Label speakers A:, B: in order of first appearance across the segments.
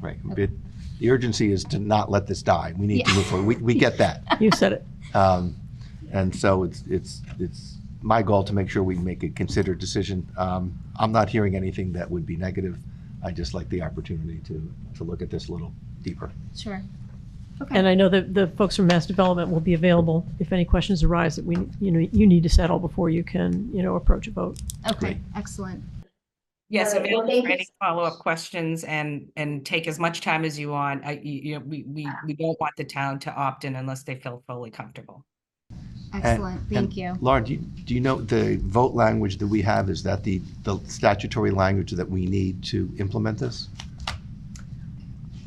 A: Right. But the urgency is to not let this die. We need to
B: Yeah.
A: move forward. We, we get that.
C: You said it.
A: Um, and so it's, it's, it's my goal to make sure we make a considered decision. Um, I'm not hearing anything that would be negative. I just like the opportunity to, to look at this a little deeper.
B: Sure. Okay.
C: And I know that the folks from Mass Development will be available if any questions arise that we, you know, you need to settle before you can, you know, approach a vote.
B: Okay, excellent.
D: Yes,
B: Alright, well,
D: available
B: thank
D: for
B: you
D: any follow-up questions and, and take as much time as you want. I, you you know, we, we, we don't want the town to opt in unless they feel fully comfortable.
B: Excellent.
A: And-
B: Thank you.
A: Laura, do you, do you know the vote language that we have? Is that the, the statutory language that we need to implement this?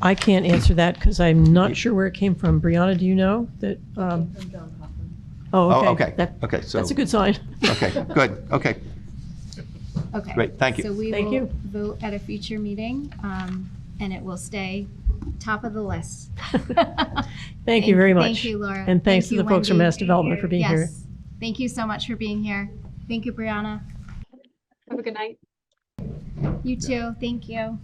C: I can't answer that because I'm not sure where it came from. Brianna, do you know that? um,
A: Oh,
C: Oh,
A: okay.
C: okay. That-
A: Okay, so.
C: That's a good sign.
A: Okay, good. Okay.
B: Okay.
A: Great, thank you.
B: So we
C: Thank
B: will
C: you.
B: vote at a future meeting, um, and it will stay top of the list.
C: Thank you very much.
B: Thank you, Laura.
C: And thanks to
B: Thank
C: the
B: you,
C: folks from
B: Wendy.
C: Mass Development for being here.
B: Yes. Thank you so much for being here. Thank you, Brianna.
E: Have a good night.
B: You too. Thank you.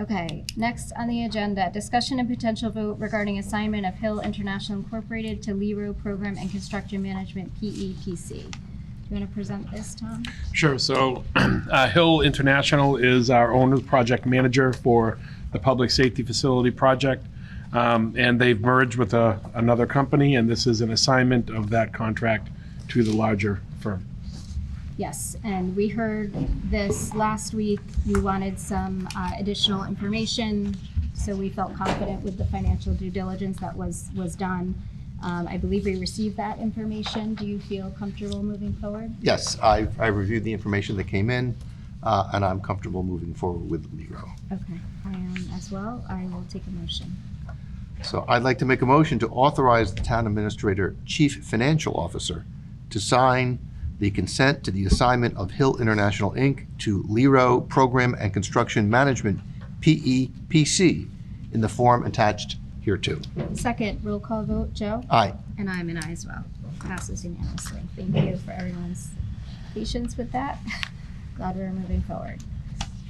B: Okay, next on the agenda, discussion and potential vote regarding assignment of Hill International Incorporated to Lero Program and Construction Management, PEPC. Do you want to present this, Tom?
F: Sure. So uh, Hill International is our owner, project manager for the public safety facility project. Um, and they've merged with a, another company, and this is an assignment of that contract to the larger firm.
B: Yes, and we heard this last week. You wanted some uh, additional information, so we felt confident with the financial due diligence that was, was done. Um, I believe we received that information. Do you feel comfortable moving forward?
A: Yes, I, I reviewed the information that came in, uh, and I'm comfortable moving forward with Lero.
B: Okay, I am as well. I will take a motion.
A: So I'd like to make a motion to authorize the town administrator, chief financial officer, to sign the consent to the assignment of Hill International, Inc. to Lero Program and Construction Management, PEPC, in the form attached hereto.
B: Second, roll call vote, Joe?
A: Aye.
B: And I'm an aye as well. Passes unanimously. Thank you for everyone's patience with that. Glad we're moving forward.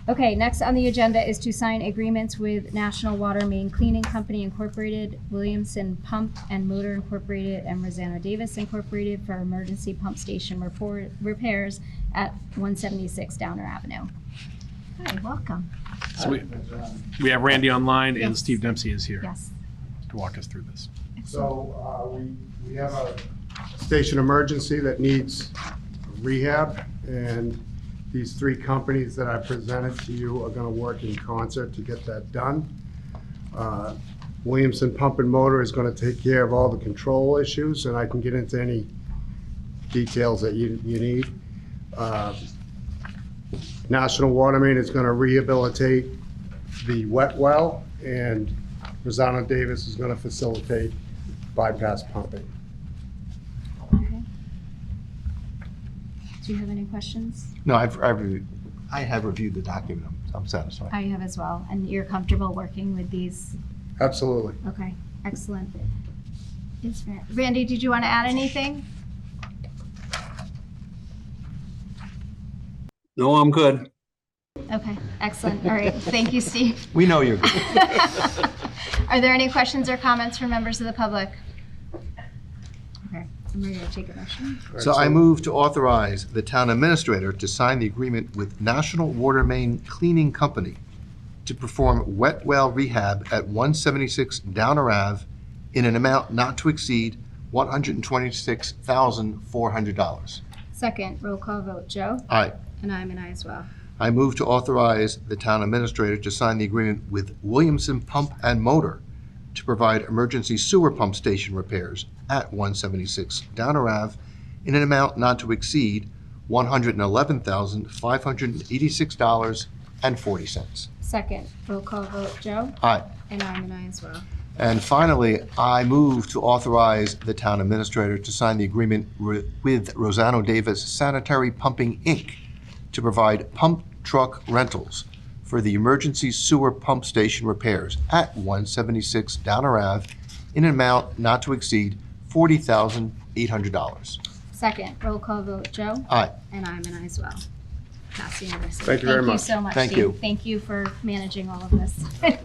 B: Okay, next on the agenda is to sign agreements with National Water Main Cleaning Company Incorporated, Williamson Pump and Motor Incorporated, and Rosanna Davis Incorporated for emergency pump station report, repairs at 176 Downer Avenue. Hi, welcome.
F: So we, we have Randy online, and
B: Yes.
F: Steve Dempsey is here
B: Yes.
F: to walk us through this.
G: So uh, we, we have a station emergency that needs rehab, and these three companies that I presented to you are going to work in concert to get that done. Uh, Williamson Pump and Motor is going to take care of all the control issues, and I can get into any details that you, you need. Uh, National Water Main is going to rehabilitate the wet well, and Rosanna Davis is going to facilitate bypass pumping.
B: Okay. Do you have any questions?
A: No, I've, I've, reviewed- I have reviewed the document. I'm- I'm satisfied.
B: I have as well, and you're comfortable working with these?
G: Absolutely.
B: Okay, excellent. Yes, Ran- Randy, did you want to add anything?
H: No, I'm good.
B: Okay, excellent. All right, thank you, Steve.
A: We know you're good.
B: Are there any questions or comments from members of the public? Okay, I'm ready to take a motion.
A: So I move to authorize the town administrator to sign the agreement with National Water Main Cleaning Company to perform wet well rehab at 176 Downer Ave in an amount not to exceed $126,400.
B: Second, roll call vote, Joe?
A: Aye.
B: And I'm an aye as well.
A: I move to authorize the town administrator to sign the agreement with Williamson Pump and Motor to provide emergency sewer pump station repairs at 176 Downer Ave in an amount not to exceed $111,586.40.
B: Second, roll call vote, Joe?
A: Aye.
B: And I'm an aye as well.
A: And finally, I move to authorize the town administrator to sign the agreement wi- with Rosano Davis Sanitary Pumping, Inc. to provide pump truck rentals for the emergency sewer pump station repairs at 176 Downer Ave in an amount not to exceed $40,800.
B: Second, roll call vote, Joe?
A: Aye.
B: And I'm an aye as well. Passed unanimously.
G: Thank you very much.
B: Thank you so much,
A: Thank
B: Steve.
A: you.
B: Thank you for managing all of this.